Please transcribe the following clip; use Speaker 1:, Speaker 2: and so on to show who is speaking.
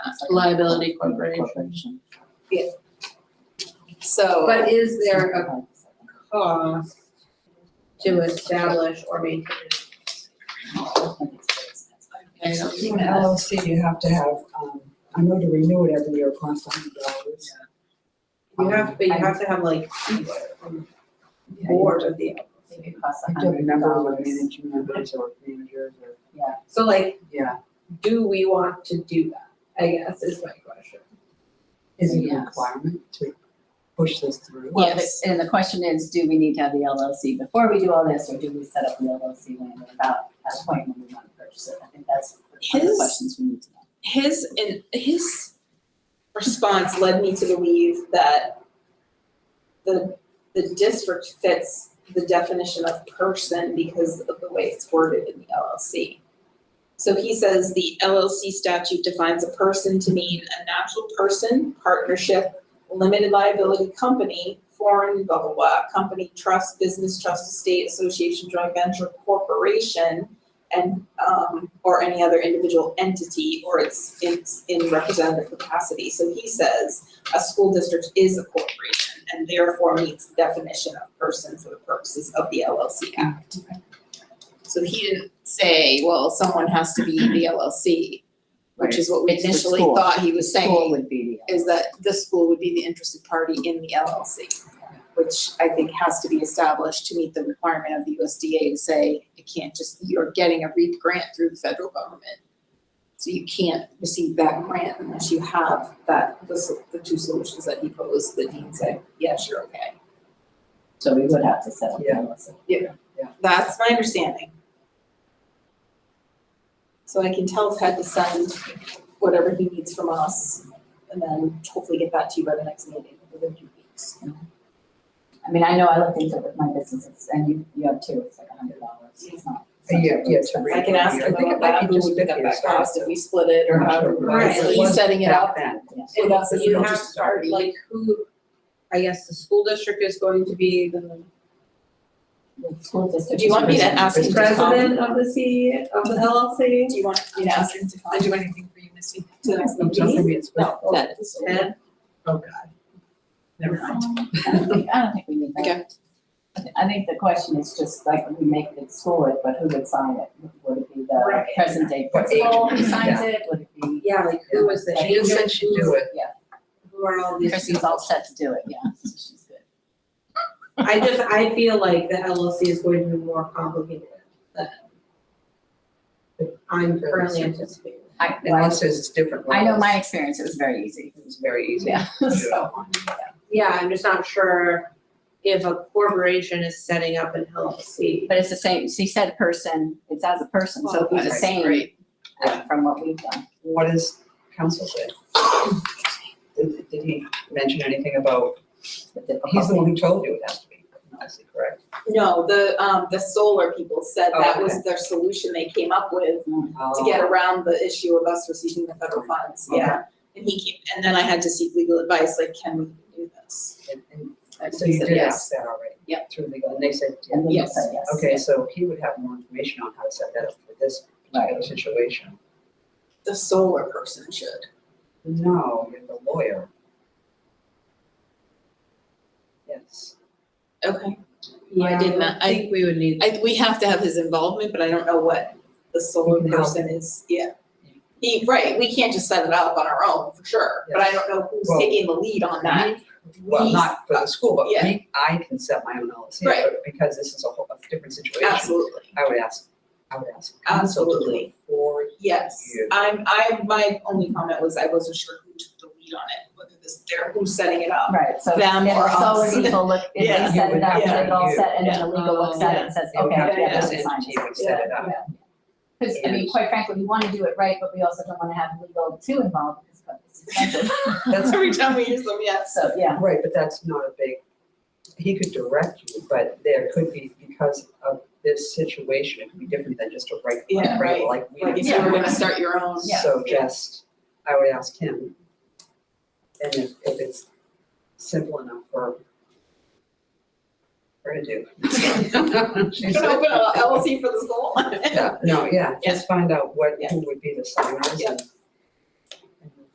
Speaker 1: liability corporation.
Speaker 2: So,
Speaker 3: But is there a cost to establish or maintain?
Speaker 1: I don't
Speaker 4: You
Speaker 1: think
Speaker 4: know,
Speaker 1: that-
Speaker 4: LLC, you have to have, um, I know to renew it every year, costs a hundred dollars.
Speaker 3: You have, but you have to have like people on board of the,
Speaker 2: I think it costs
Speaker 4: I
Speaker 2: a
Speaker 4: don't
Speaker 2: hundred
Speaker 4: remember what
Speaker 2: dollars.
Speaker 4: managing members or managers or,
Speaker 3: so like,
Speaker 4: yeah,
Speaker 3: do we want to do that, I guess is my question.
Speaker 4: is it a
Speaker 1: Yes.
Speaker 4: requirement to push this through?
Speaker 1: Well, the-
Speaker 2: Yes.
Speaker 1: and the question is, do we need to have the LLC before we do all this, or do we set up the LLC when we're about at a point when we want to purchase it? I think that's one of the
Speaker 3: His-
Speaker 1: questions we need to know.
Speaker 3: His, and his response led me to believe that the, the district fits the definition of person because of the way it's worded in the LLC. So he says the LLC statute defines a person to mean a natural person, partnership, limited liability company, foreign, blah, blah, blah, company, trust, business, trust, estate, association, joint venture, corporation, and, um, or any other individual entity or its, its in representative capacity. So he says a school district is a corporation and therefore meets the definition of person for the purposes of the LLC Act. So he didn't say, well, someone has to be the LLC, which is what we
Speaker 1: Right, it's the
Speaker 3: initially
Speaker 1: school.
Speaker 3: thought he was saying
Speaker 1: School would be the.
Speaker 3: is that this school would be the interested party in the LLC, which I think has to be established to meet the requirement of the USDA to say, it can't just, you're getting a REAP grant through the federal government. So you can't receive that grant unless you have that, the, sol- the two solutions that he posed, the dean said, yes, you're okay.
Speaker 1: So we would have to set up the
Speaker 4: Yeah.
Speaker 1: LLC.
Speaker 3: That's my understanding. So I can tell Ted to send whatever he needs from us, and then hopefully get that to you by the next meeting, within two weeks.
Speaker 1: I mean, I know I looked into it with my businesses, and you, you have two, it's like a hundred dollars, it's not.
Speaker 4: A year, yeah, to
Speaker 1: expensive.
Speaker 4: re-
Speaker 3: I can ask him
Speaker 4: I think
Speaker 3: about that,
Speaker 4: it
Speaker 3: who
Speaker 4: just
Speaker 3: would pick up
Speaker 4: fifty or
Speaker 3: that
Speaker 4: something.
Speaker 3: cost if we split it or
Speaker 4: Not sure
Speaker 3: however.
Speaker 4: what it
Speaker 3: Right,
Speaker 4: is.
Speaker 3: so
Speaker 4: It
Speaker 3: he's
Speaker 4: was
Speaker 3: setting it
Speaker 4: back
Speaker 3: up
Speaker 4: then.
Speaker 1: Yeah.
Speaker 3: with us,
Speaker 4: It's
Speaker 3: you
Speaker 4: not
Speaker 3: have
Speaker 4: just
Speaker 3: to start, like, like, who, I guess the school district is going to be the
Speaker 1: The school district.
Speaker 3: Do you want me to ask him to come?
Speaker 1: President
Speaker 3: of
Speaker 2: the C, of the LLC.
Speaker 3: do you want, you know, ask him to find
Speaker 2: do anything for you, Missy.
Speaker 3: to the next
Speaker 4: I'm just
Speaker 3: meeting?
Speaker 4: gonna be a
Speaker 3: No,
Speaker 4: special-
Speaker 3: that is.
Speaker 4: Ted? Oh, God. Never mind.
Speaker 1: I don't think, I don't think we need that.
Speaker 3: Okay.
Speaker 1: I thi- I think the question is just like, we make it school it, but who would sign it? Would it be the
Speaker 3: Right.
Speaker 1: present day
Speaker 4: What
Speaker 1: principal
Speaker 4: age?
Speaker 1: who signs
Speaker 4: Yeah.
Speaker 1: it? Would it be?
Speaker 3: Yeah, like, who was the
Speaker 1: Like,
Speaker 4: You
Speaker 3: agent?
Speaker 4: said she'd do it.
Speaker 3: Who are all these
Speaker 1: Chrissy's all set to do it, yeah, she's good.
Speaker 3: I just,
Speaker 2: I feel like the LLC is going to be more complicated than I'm currently anticipating.
Speaker 1: I,
Speaker 4: Unless there's different
Speaker 1: I know
Speaker 4: levels.
Speaker 1: my experience, it was very easy,
Speaker 4: It was very easy.
Speaker 1: yeah, so.
Speaker 2: Yeah, I'm just not sure if a corporation is setting up an LLC.
Speaker 1: But it's the same, she said person, it's as a person, so it'd be
Speaker 3: Right,
Speaker 1: the same
Speaker 3: right.
Speaker 1: uh, from what we've done.
Speaker 4: What does council say? Did did he mention anything about,
Speaker 1: with
Speaker 4: he's
Speaker 1: the
Speaker 4: the
Speaker 1: proposal.
Speaker 4: one who told you it has to be, honestly, correct?
Speaker 3: No, the, um, the solar people said
Speaker 4: Oh,
Speaker 3: that was
Speaker 4: okay.
Speaker 3: their solution they came up with to
Speaker 4: Oh,
Speaker 3: get around the issue of us receiving the federal funds, yeah. And he came, and then I had to seek legal advice, like, can we do this?
Speaker 4: and- and-
Speaker 3: And
Speaker 4: So
Speaker 3: he
Speaker 4: you
Speaker 3: said
Speaker 4: did
Speaker 3: yes.
Speaker 4: ask that already?
Speaker 3: Yep.
Speaker 4: Through legal, and they said,
Speaker 1: And then you
Speaker 3: Yes.
Speaker 1: said yes.
Speaker 4: okay, so he would have more information on how to set that up for this particular situation.
Speaker 3: The solar person should.
Speaker 4: No, you're the lawyer. Yes.
Speaker 3: Okay. I did not,
Speaker 2: I
Speaker 3: I,
Speaker 2: think we would need,
Speaker 3: I, we have to have his involvement, but I don't know what the solar
Speaker 4: We can help.
Speaker 3: person is, yeah. He, right, we can't just set it up on our own, for sure, but I
Speaker 4: Yes.
Speaker 3: don't know who's
Speaker 4: Well,
Speaker 3: taking the lead on that.
Speaker 4: Well,
Speaker 3: We-
Speaker 4: not for the school, but
Speaker 3: Yeah.
Speaker 4: me, I can set my own LLC,
Speaker 3: Right.
Speaker 4: but because this is a whole, a different situation.
Speaker 3: Absolutely,
Speaker 4: I would ask, I would ask council to do
Speaker 3: Absolutely.
Speaker 4: it for
Speaker 3: yes.
Speaker 4: Yeah.
Speaker 3: I'm, I, my only comment was I wasn't sure who took the lead on it, whether this, they're, who's setting it up.
Speaker 1: Right, so
Speaker 3: Them
Speaker 1: if
Speaker 3: or
Speaker 1: the solar
Speaker 3: us.
Speaker 1: people look, if
Speaker 3: Yeah.
Speaker 1: they set it up,
Speaker 3: Yeah.
Speaker 1: they get all set, and then
Speaker 3: Yeah.
Speaker 1: the legal looks at it and says,
Speaker 4: It would
Speaker 1: okay,
Speaker 4: have to be
Speaker 1: yeah,
Speaker 4: this
Speaker 1: that's fine.
Speaker 4: entity would set it up.
Speaker 1: Because, I mean, quite frankly, we want to do it right, but we also don't want to have legal too involved because it's expensive.
Speaker 4: That's
Speaker 3: Every time we use them, yes.
Speaker 1: So, yeah,
Speaker 4: Right, but that's not a big, he could direct you, but there could be, because of this situation, it could be different than just a right,
Speaker 3: Yeah,
Speaker 4: right,
Speaker 3: right.
Speaker 4: like we.
Speaker 3: Like if you were gonna start your own,
Speaker 1: Yeah.
Speaker 4: So just, I would ask him. And if, if it's simple enough for her to do.
Speaker 3: you
Speaker 4: She's
Speaker 3: can open
Speaker 4: like-
Speaker 3: a LLC for the school.
Speaker 4: Yeah, no, yeah,
Speaker 3: Yeah.
Speaker 4: just find out what,
Speaker 3: Yeah.
Speaker 4: who would be the signers
Speaker 3: Yeah.
Speaker 4: and